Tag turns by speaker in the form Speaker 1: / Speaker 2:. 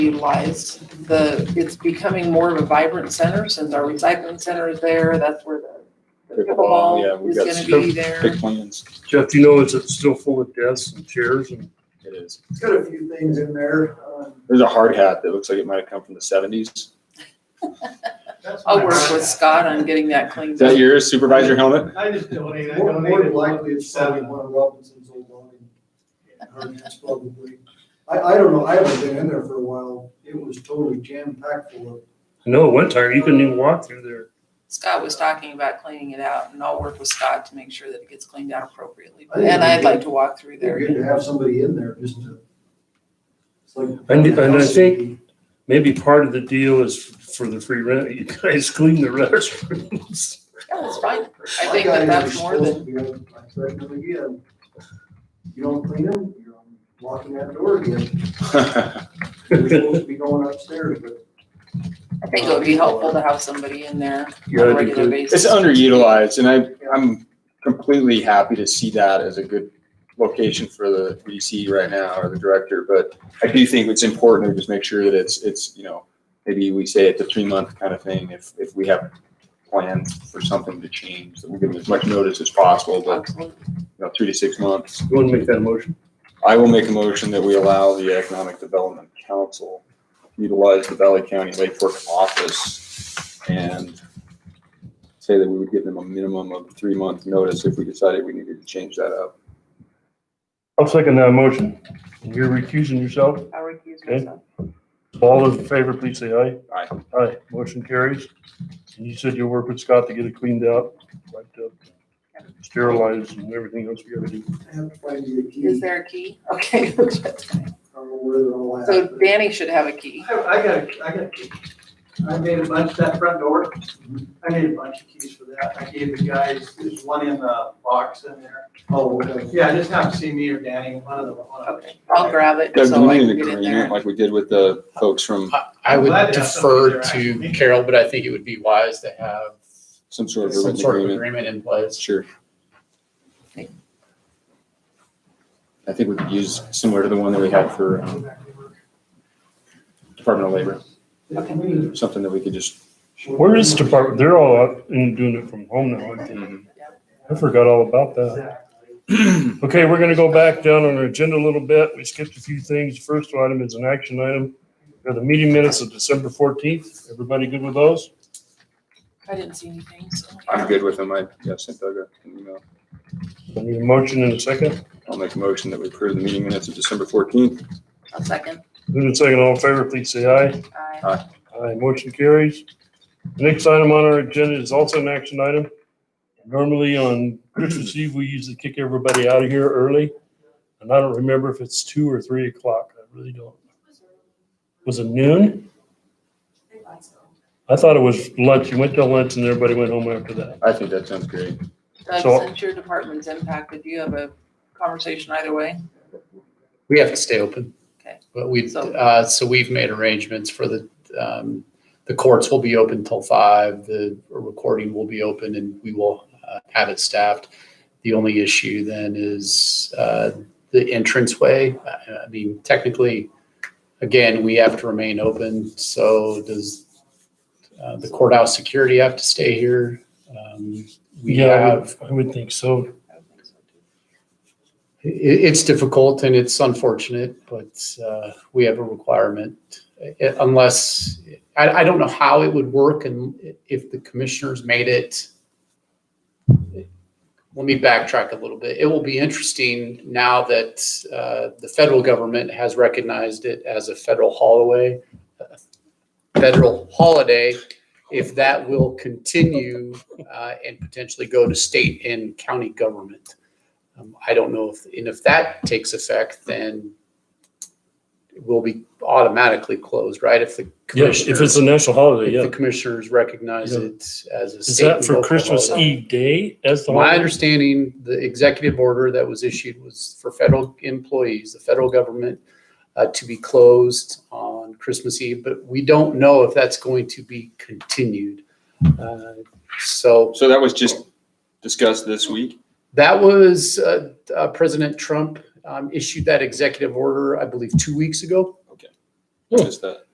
Speaker 1: utilized. The, it's becoming more of a vibrant center since our recycling center is there. That's where the the
Speaker 2: Pickleball, yeah,
Speaker 1: pickleball is
Speaker 2: we've got
Speaker 1: gonna be
Speaker 2: some Big
Speaker 1: there.
Speaker 2: plans.
Speaker 3: Jeff, you know, is it still full of desks and chairs and?
Speaker 2: It is.
Speaker 4: It's got a few things in there. um,
Speaker 2: There's a hard hat that looks like it might have come from the seventies.
Speaker 5: That's
Speaker 1: I'll
Speaker 5: my-
Speaker 1: work with Scott on getting that
Speaker 2: Is
Speaker 1: cleaned
Speaker 2: that
Speaker 1: up.
Speaker 2: yours, supervisor helmet?
Speaker 5: I just donated, I
Speaker 4: More
Speaker 5: donated.
Speaker 4: more than likely, it's probably
Speaker 5: seven.
Speaker 4: one of Robinson's old lines. Hers probably. I, I don't know, I haven't been in there for a while. It was totally jam-packed full of.
Speaker 3: No, one time you couldn't even walk through there.
Speaker 1: Scott was talking about cleaning it out and I'll work with Scott to make sure that it gets cleaned out appropriately.
Speaker 4: I think
Speaker 1: And
Speaker 4: it'd
Speaker 1: I'd
Speaker 4: be
Speaker 1: like
Speaker 4: good-
Speaker 1: to walk through
Speaker 4: They're
Speaker 1: there.
Speaker 4: good to have somebody in there just to. It's like.
Speaker 3: And- and I think- Maybe part of the deal is for the free rent. You guys clean the restrooms.
Speaker 1: Yeah, that's fine. I
Speaker 4: My
Speaker 1: think that
Speaker 4: guys
Speaker 1: that's
Speaker 4: are
Speaker 1: more than,
Speaker 4: supposed to be on- I threaten them again. You don't clean them, you're locking that door again. You're supposed to be going upstairs, but.
Speaker 1: I think it would be helpful to have somebody in there on
Speaker 3: Yeah, I
Speaker 1: a
Speaker 3: do
Speaker 1: regular
Speaker 3: too.
Speaker 2: It's
Speaker 1: basis.
Speaker 2: underutilized and I, I'm completely happy to see that as a good location for the VDC right now or the director, but I do think it's important to just make sure that it's, it's, you know, maybe we say it's a three month kind of thing if, if we have plans for something to change, that we give them as much notice as possible, but,
Speaker 1: Absolutely.
Speaker 2: you know, three to six months.
Speaker 3: You want to make that motion?
Speaker 2: I will make a motion that we allow the Economic Development Council to utilize the Valley County Lake Fork office and say that we would give them a minimum of three month notice if we decided we needed to change that up.
Speaker 3: I'll second that motion. You're recusing yourself.
Speaker 1: I recuse
Speaker 3: Okay.
Speaker 1: myself.
Speaker 3: All those in favor, please say aye.
Speaker 2: Aye.
Speaker 3: Aye. Motion carries. And you said you'll work with Scott to get it cleaned out, wiped up, sterilized and everything else we gotta do.
Speaker 4: I have to find you a key.
Speaker 1: Is there a key? Okay.
Speaker 4: I don't know where they're all at.
Speaker 1: So
Speaker 4: but-
Speaker 1: Danny should have a key.
Speaker 5: I, I got, a- I got, a key. I made a bunch, that front door, I made a bunch of keys for that, I gave the guys, there's one in the box in there.
Speaker 4: Oh, okay.
Speaker 5: Yeah, just have to see me or Danny, one of the, one of them.
Speaker 1: Okay, I'll grab it
Speaker 2: Doug, do
Speaker 1: so I
Speaker 2: we
Speaker 1: can
Speaker 2: need an
Speaker 1: get in there.
Speaker 2: agreement like we did with the folks from
Speaker 6: I- I
Speaker 5: Glad
Speaker 6: would
Speaker 5: to have somebody
Speaker 6: defer
Speaker 5: there,
Speaker 6: to
Speaker 5: actually.
Speaker 6: Carol, but I think it would be wise to have
Speaker 2: some sort of
Speaker 6: some
Speaker 2: written
Speaker 6: sort of
Speaker 2: agreement?
Speaker 6: agreement in place.
Speaker 2: Sure. I think we could use similar to the one that we had for um, Department of Labor, something that we could just.
Speaker 3: Where is department? They're all out and doing it from home now. aren't they?
Speaker 1: Mm-hmm.
Speaker 3: I forgot all about that.
Speaker 5: Exactly.
Speaker 3: Okay, we're gonna go back down on our agenda a little bit. We skipped a few things. First item is an action item. Are the meeting minutes of December fourteenth? Everybody good with those?
Speaker 1: I didn't see anything, so.
Speaker 2: I'm good with them. I, yeah, sent Doug an email.
Speaker 3: I need a motion in a second.
Speaker 2: I'll make a motion that we approve the meeting minutes of December fourteenth.
Speaker 1: A second.
Speaker 3: Move in second, all in favor, please say aye.
Speaker 1: Aye.
Speaker 3: Aye, motion carries. The Next item on our agenda is also an action item. Normally on Christmas Eve, we usually kick everybody out of here early. And I don't remember if it's two or three o'clock. I really don't. Was it noon? I thought it was lunch. You went to lunch and everybody went home after that.
Speaker 2: I think that sounds great.
Speaker 1: Doug,
Speaker 3: So-
Speaker 1: since your department's impacted, do you have a conversation either way?
Speaker 6: We have to stay open.
Speaker 1: Okay.
Speaker 6: But we've,
Speaker 1: So-
Speaker 6: uh, so we've made arrangements for the, um, the courts will be open till five, the recording will be open and we will uh, have it staffed. The only issue then is, uh, the entranceway. I I mean, technically, again, we have to remain open, so does, uh, the courthouse security have to stay here? Um, We
Speaker 3: Yeah, I
Speaker 6: have
Speaker 3: would- I would think so.
Speaker 1: I don't think so, too.
Speaker 6: it, it's difficult and it's unfortunate, but uh, we have a requirement. It- Unless, I, I don't know how it would work and if the commissioners made it. Let me backtrack a little bit. It will be interesting now that uh, the federal government has recognized it as a federal holiday. Federal holiday, if that will continue uh, and potentially go to state and county government. Um, I don't know if, and if that takes effect, then we'll be automatically closed, right? If the
Speaker 3: Yeah, if
Speaker 6: commissioners,
Speaker 3: it's a national holiday,
Speaker 6: if
Speaker 3: yeah.
Speaker 6: the commissioners recognize
Speaker 3: Yeah.
Speaker 6: it as a
Speaker 3: Is
Speaker 6: state.
Speaker 3: that
Speaker 6: and
Speaker 3: for
Speaker 6: local
Speaker 3: Christmas
Speaker 6: holiday.
Speaker 3: Eve day? That's the
Speaker 6: My
Speaker 3: holiday?
Speaker 6: understanding, the executive order that was issued was for federal employees, the federal government, uh, to be closed on Christmas Eve, but we don't know if that's going to be continued. Uh, So
Speaker 2: So that was just discussed this week.
Speaker 6: that was, uh, uh, President Trump, um, issued that executive order, I believe, two weeks ago.
Speaker 2: Just that.